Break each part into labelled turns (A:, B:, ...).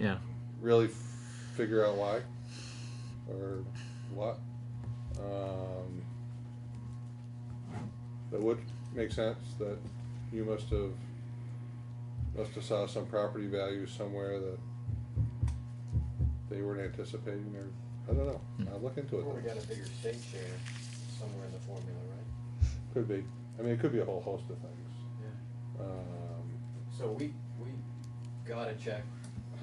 A: Yeah.
B: really f- figure out why or what. Um, that would make sense that you must have must have saw some property value somewhere that they weren't anticipating or I don't know. I'll look into it.
C: Well, we
B: though.
C: got a bigger state share somewhere in the formula, right?
B: Could be. I mean, it could be a whole host of things.
C: Yeah.
B: Um,
C: So we, we got a check,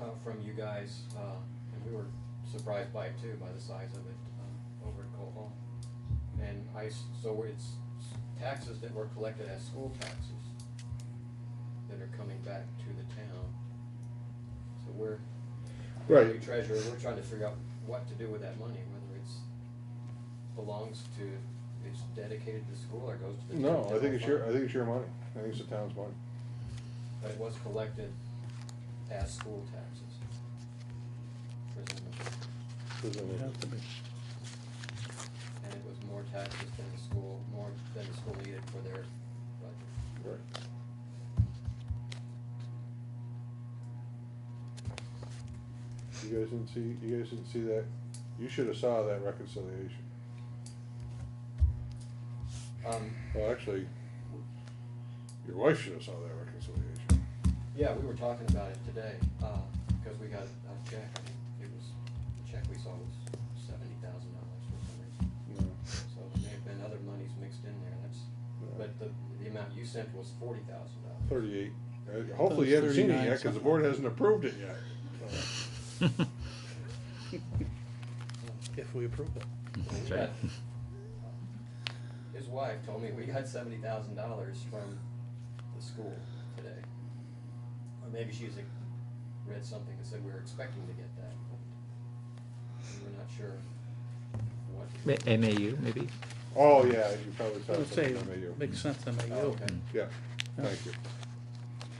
C: uh, from you guys, uh, and we were surprised by it too, by the size of it, uh, over at Cole Hall. And I, s- so it's taxes that were collected as school taxes that are coming back to the town. So we're,
B: Right.
C: we treasurer, we're trying to figure out what to do with that money, whether it's belongs to, it's dedicated to school or goes to the.
B: no,
C: town
B: I think it's your I
C: general fund.
B: think it's your money. I think it's the town's money.
C: But it was collected as school taxes. Presumably.
B: Doesn't mean-
C: And it was more taxes than the school, more than the school needed for their budget.
B: Right. You guys didn't see, you guys didn't see that, you should have saw that reconciliation.
C: Um,
B: Well, actually, your wife should have saw that reconciliation.
C: yeah, we were talking about it today, uh, because we got a check, I think it was, the check we saw was seventy thousand dollars for some reason.
B: No,
C: So there may have been other monies mixed in there, that's,
B: no,
C: but the, the amount you sent was forty thousand dollars.
B: Thirty-eight. Uh, Hopefully you haven't seen it
D: 39
B: yet, cause the board hasn't approved it yet.
D: If we approve it.
A: That's right.
C: His wife told me we got seventy thousand dollars from the school today. Or maybe she's like, read something that said we were expecting to get that, but we were not sure what.
A: Ma- MAU, maybe?
B: Oh, yeah, you probably
D: I
B: saw
D: would say,
B: something from you.
D: makes sense to me,
C: Oh,
D: you.
C: okay.
B: Yeah, thank you.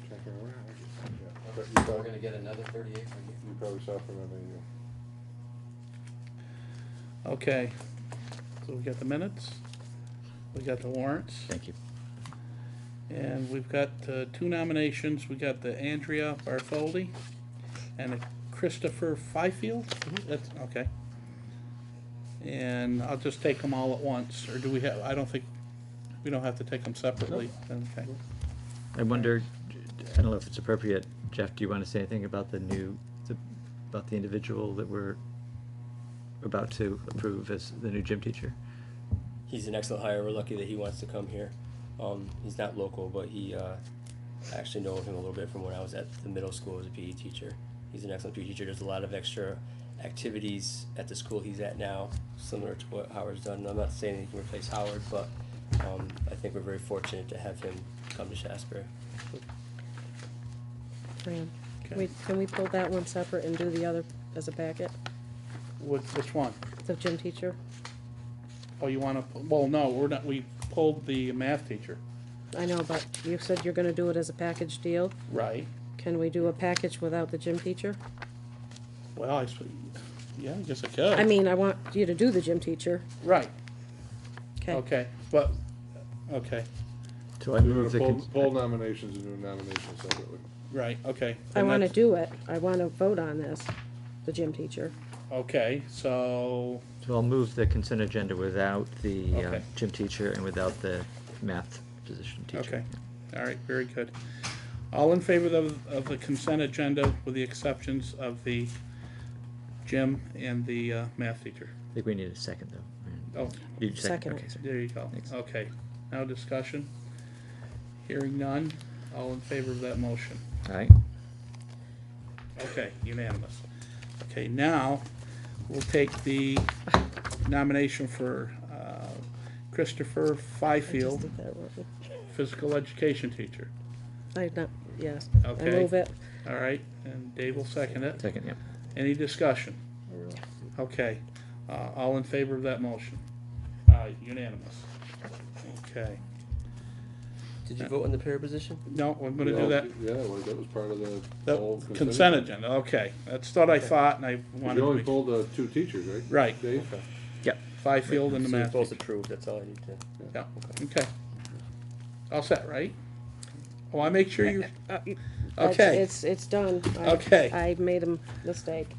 B: Checking around, yeah, but you
C: So
B: probably-
C: We're gonna get another thirty-eight from you.
B: You probably saw from MAU.
D: Okay, so we got the minutes, we got the warrants,
A: Thank you.
D: and we've got uh, two nominations. We got the Andrea Bartholdi and the Christopher Fifield. That's, okay. And I'll just take them all at once, or do we have, I don't think, we don't have to take them separately. Okay.
A: I wonder, I don't know if it's appropriate, Jeff, do you want to say anything about the new, the- about the individual that we're about to approve as the new gym teacher?
E: he's an excellent hire. We're lucky that he wants to come here. Um, he's not local, but he uh, I actually know him a little bit from when I was at the middle school as a PE teacher. He's an excellent PE teacher. There's a lot of extra activities at the school he's at now, similar to what Howard's done. And I'm not saying he can replace Howard, but um, I think we're very fortunate to have him come to Shasbury.
F: Fran,
D: Okay.
F: wait, can we pull that one separate and do the other as a packet?
D: Which, which one?
F: The gym teacher?
D: Oh, you wanna, well, no, we're not, we pulled the math teacher.
F: I know, but you said you're gonna do it as a package deal.
D: Right.
F: Can we do a package without the gym teacher?
D: Well, I, s- yeah, I guess I could.
F: I mean, I want you to do the gym teacher,
D: Right,
F: okay?
D: okay, but, okay,
A: So I
B: We
A: move
B: would
A: the,
B: have
A: cons-
B: pulled, pulled nominations and do nominations separately.
D: right, okay.
F: I
D: And
F: wanna
D: that's-
F: do it. I wanna vote on this, the gym teacher.
D: Okay, so,
A: so I'll move the consent agenda without the uh,
D: Okay.
A: gym teacher and without the math position teacher.
D: okay, all right, very good. All in favor of, of the consent agenda with the exceptions of the gym and the uh, math teacher?
A: I think we need a second, though.
D: Oh,
A: You
F: Second.
A: Okay, sorry.
D: there you go,
A: Thanks.
D: okay. Now discussion. Hearing none, all in favor of that motion?
A: All right.
D: Okay, unanimous. Okay, now, we'll take the nomination for uh, Christopher
F: I just
D: Fifield,
F: did that wrong.
D: physical education teacher.
F: I not, yes. I
D: Okay.
F: move it.
D: All right, and Dave will second it.
A: Second, yeah.
D: Any discussion? Okay, uh, all in favor of that motion? Uh, Unanimous. Okay,
E: Did
D: you
E: you vote on the pair position?
D: no, I'm gonna do
B: Yeah,
D: that,
B: Yeah, well, that was part of the whole
D: the consent
B: agenda.
D: agenda, okay. That's what I thought, and I wanted
B: You only
D: to,
B: pulled the two teachers, right?
D: Right.
B: Dave?
A: Yep.
D: be- Fifield and the
E: So
D: math.
E: both approved. That's all I need to.
D: Yeah, okay. All set, right? Oh, I make sure you,
F: Uh, you- That's-
D: Okay.
F: It's, it's done. I-
D: Okay.
F: I made a mistake.